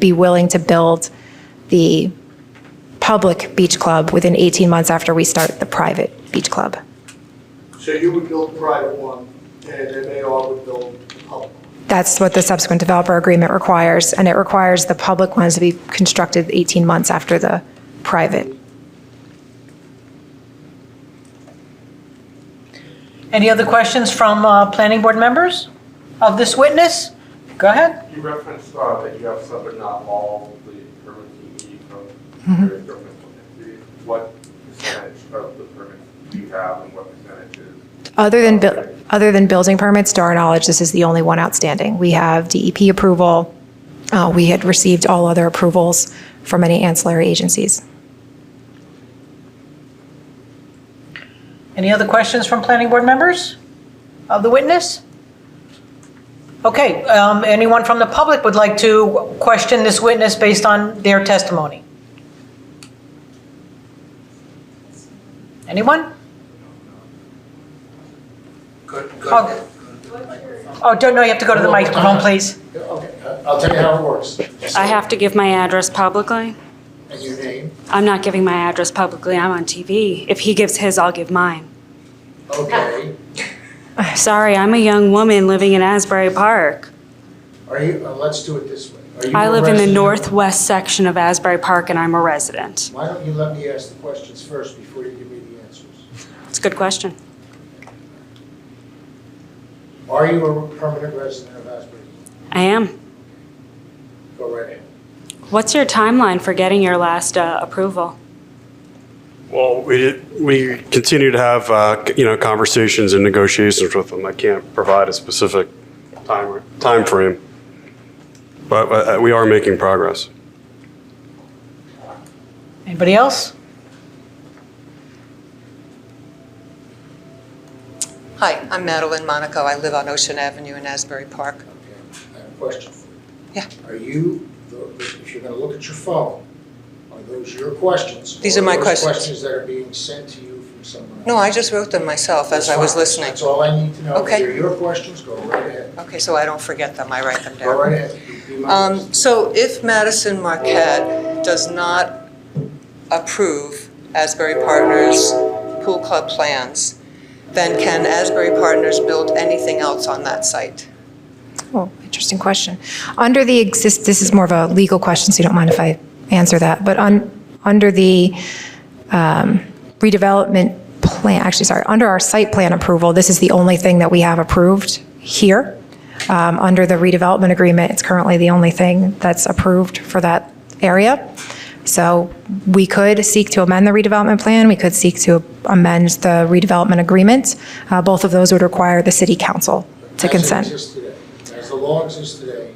be willing to build the public beach club within 18 months after we start the private beach club. So you would build a private one, and MAR would build a public. one. That's what the subsequent developer agreement requires, and it requires the public ones to be constructed 18 months after the private. Any other questions from uh, planning board members of this witness? Go ahead. You referenced uh, that you have some, but not all the permits you need from various government entities. What percentage of the permits do you have and what percentage is? Other than, buil- other than building permits, to our knowledge, this is the only one outstanding. We have DEP approval. Uh, We had received all other approvals from any ancillary agencies. Any other questions from planning board members of the witness? Okay, um, anyone from the public would like to question this witness based on their testimony? Anyone? Good, Oh. Oh, don't, no, you have to go to the microphone, please. Okay, I- I'll tell you how it works. I have to give my address publicly. And your name, I'm not giving my address publicly, I'm on TV. If he gives his, I'll give mine. okay. Sorry, I'm a young woman living in Asbury Park. Are you, uh, let's do it this way. Are you I a live in the resident? northwest section of Asbury Park and I'm a resident. Why don't you let me ask the questions first before you give me the answers? It's a good question. Are you a permanent resident of Asbury? I am. Go right ahead. What's your timeline for getting your last uh, approval? Well, we, we continue to have, uh, you know, conversations and negotiations with them. I can't provide a specific time, timeframe. But uh, we are making progress. Anybody else? Hi, I'm Madeline Monaco. I live on Ocean Avenue in Asbury Park. Okay, I have a question for you. Yeah. Are you, if you're gonna look at your phone, are those your questions? These or are my those questions. questions that are being sent to you from someone else? No, I just wrote them myself as That's I was fine. listening. That's all I need to know. Okay. They're your questions, go right ahead. Okay, so I don't forget them. I write them Go down. right ahead. You do my business. Um, So if Madison Marquette does not approve Asbury Partners Pool Club plans, then can Asbury Partners build anything else on that site? Oh, interesting question. Under the exist, this is more of a legal question, so you don't mind if I answer that, but on, under the um, redevelopment plan, actually, sorry, under our site plan approval, this is the only thing that we have approved here. Um, Under the redevelopment agreement, it's currently the only thing that's approved for that area. So we could seek to amend the redevelopment plan, we could seek to amend the redevelopment agreement. Uh, Both of those would require the city council to consent. Mm-hmm. As it exists today, as the law exists today,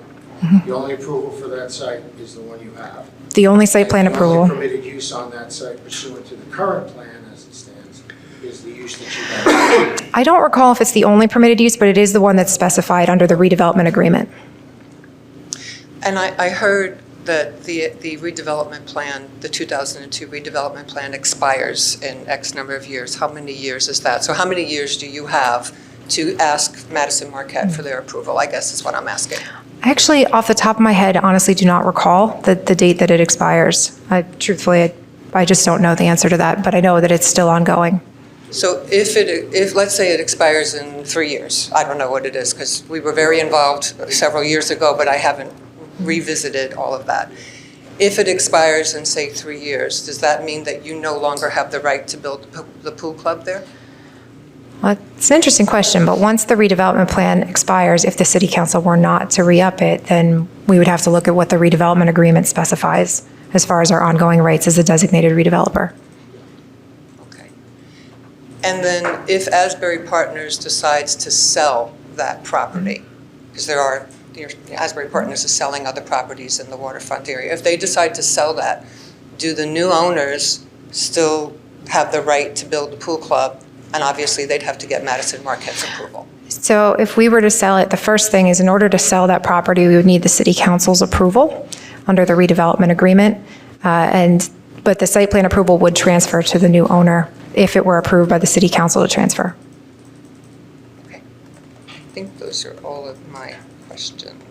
the only approval for that site is the one you have. The only site plan And the only approval, permitted use on that site pursuant to the current plan as it stands is the use that you have. I don't recall if it's the only permitted use, but it is the one that's specified under the redevelopment agreement. And I, I heard that the, the redevelopment plan, the 2002 redevelopment plan expires in X number of years. How many years is that? So how many years do you have to ask Madison Marquette for their approval? I guess is what I'm asking. I Actually, off the top of my head, honestly do not recall the, the date that it expires. I truthfully, I- I just don't know the answer to that, but I know that it's still ongoing. So if it, if, let's say it expires in three years, I don't know what it is, because we were very involved several years ago, but I haven't revisited all of that. If it expires in, say, three years, does that mean that you no longer have the right to build the pool- the pool club there? Well, It's an interesting question, but once the redevelopment plan expires, if the city council were not to re-up it, then we would have to look at what the redevelopment agreement specifies as far as our ongoing rights as a designated redeveloper. Okay. And then if Asbury Partners decides to sell that property, because there are, you know, Asbury Partners is selling other properties in the waterfront area. If they decide to sell that, do the new owners still have the right to build the pool club? And obviously, they'd have to get Madison Marquette's approval. So if we were to sell it, the first thing is in order to sell that property, we would need the city council's approval under the redevelopment agreement. Uh, And, but the site plan approval would transfer to the new owner if it were approved by the city council to transfer. I think those are all of my questions.